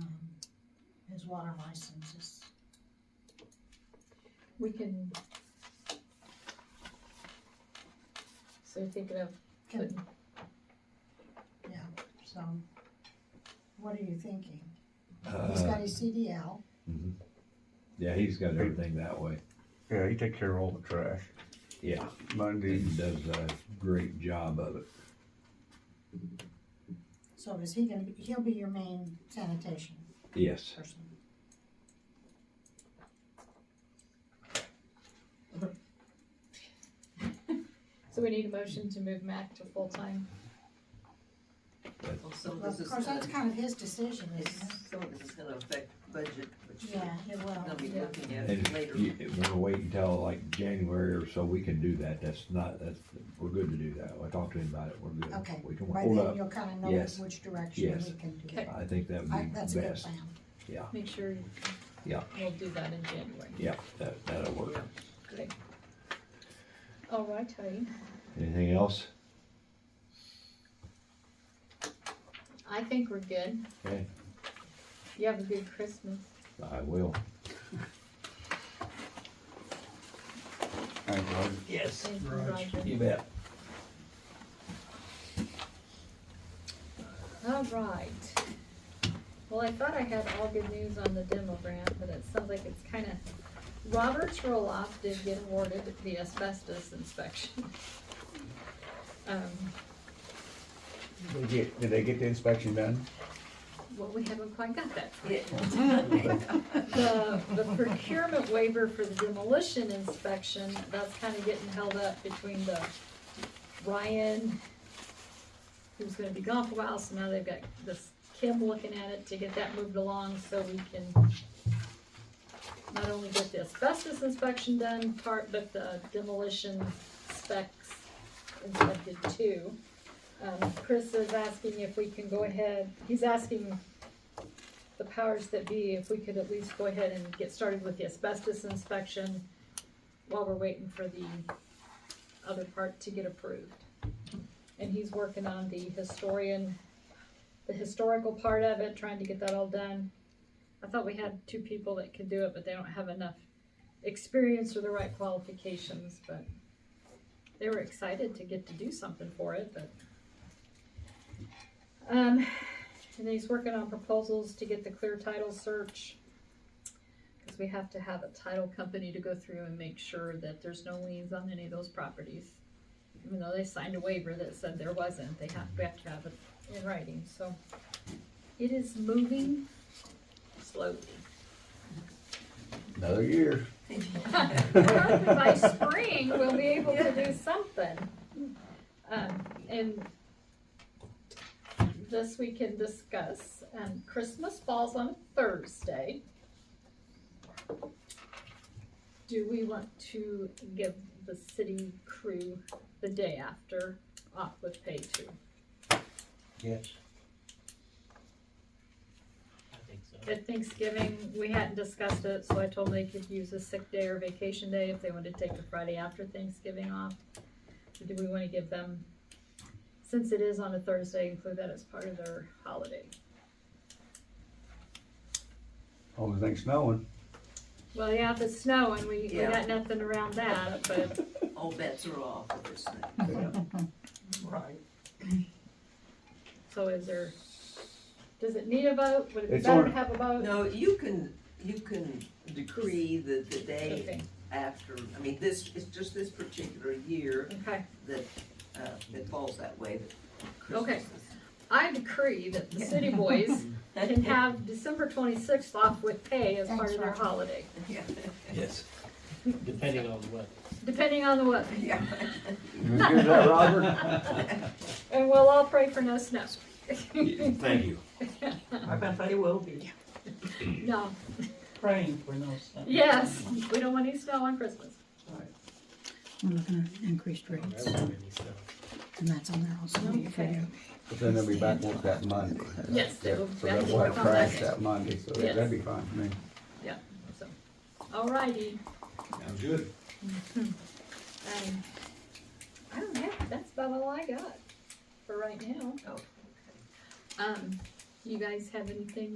um, water licenses. We can. So you're thinking of Can- putting, Yeah, so, what are you thinking? He's got Uh, his CDL, mhm. Yeah, he's got everything that way. Yeah, he take care of all the trash. Yeah, he Monday, does a great job of it. so is he gonna, be? he'll be your main sanitation Yes. person? so we need a motion to move Mac to full-time, Well, some of Well, this Of is course, gonna, that's kind of his decision, it's- isn't some of this is gonna affect budget, which it? Yeah, we're it gonna will. be Yeah. looking And at later. you, if we're wait until like January or so, we can do that. That's not, that's, we're good to do that. I talked to him about it. We're good. Okay, We can By hold then, up. you'll kind of know Yes. which direction we Yes. can do. Okay. it. I think that I- would That's be a good best. plan. make sure. you- Yeah. We'll do that in January. Yeah, that, that'll work. Yeah. Great. All right, honey. Anything else? I think we're good. Okay, You have a good Christmas. I will. thank God. Yes. Thank you, Roger. You bet. All right. Well, I thought I had all good news on the demo grant, but it sounds like it's kind of, Robert Roloff did get awarded the asbestos inspection. Um, Did they get, did they get the inspection done? Well, we haven't quite got that. Yeah. The the procurement waiver for the demolition inspection, that's kind of getting held up between the Ryan, who's gonna be gone for a while, so now they've got this Kim looking at it to get that moved along so we can not only get the asbestos inspection done part, but the demolition specs inspected too. Um, Chris is asking if we can go ahead, he's asking the powers that be, if we could at least go ahead and get started with the asbestos inspection while we're waiting for the other part to get approved. And he's working on the historian, the historical part of it, trying to get that all done. I thought we had two people that could do it, but they don't have enough experience or the right qualifications, but they were excited to get to do something for it, but. Um, and then he's working on proposals to get the clear title search. Cause we have to have a title company to go through and make sure that there's no liens on any of those properties. Even though they signed a waiver that said there wasn't, they have, we have to have it in writing, so. It is moving slowly. Another year. By spring, we'll be able to do something. Um, and this we can discuss, um, Christmas falls on Thursday. Do we want to give the city crew the day after off with pay too? Yes. I think so. At Thanksgiving, we hadn't discussed it, so I told them they could use a sick day or vacation day if they wanted to take the Friday after Thanksgiving off. Do we wanna give them, since it is on a Thursday, include that as part of their holiday? Only thing snowing. Well, yeah, if it's snowing, we, we Yeah. got nothing around that, but, All bets are off with this thing. Right. so is there, does it need a vote? Would it be It's better on- to have a vote? No, you can, you can decree the, the day Okay, after, I mean, this, it's just this particular year okay. that, uh, it falls that way, that Okay. Christmas I decree that the city boys is- can have December twenty-sixth off with pay as part Thanks, of their Roger. holiday, Yeah, Yes. Depending on what. depending on the weather. yeah. You good with that, Robert? And we'll all pray for no snow. Thank you. I bet they will be. No, Praying for no snow. yes, we don't want any snow on Christmas. We're looking at increased rates, and that's on there also, you Okay. figure. But then they'll be back work that Monday. Yes, they will back Yeah, So that to will work on crash Monday. that Monday, so that- that'd be fine, I mean. So, alrighty, Sounds good. um, I don't have, that's about all I got for right now. Oh, okay. Um, you guys have anything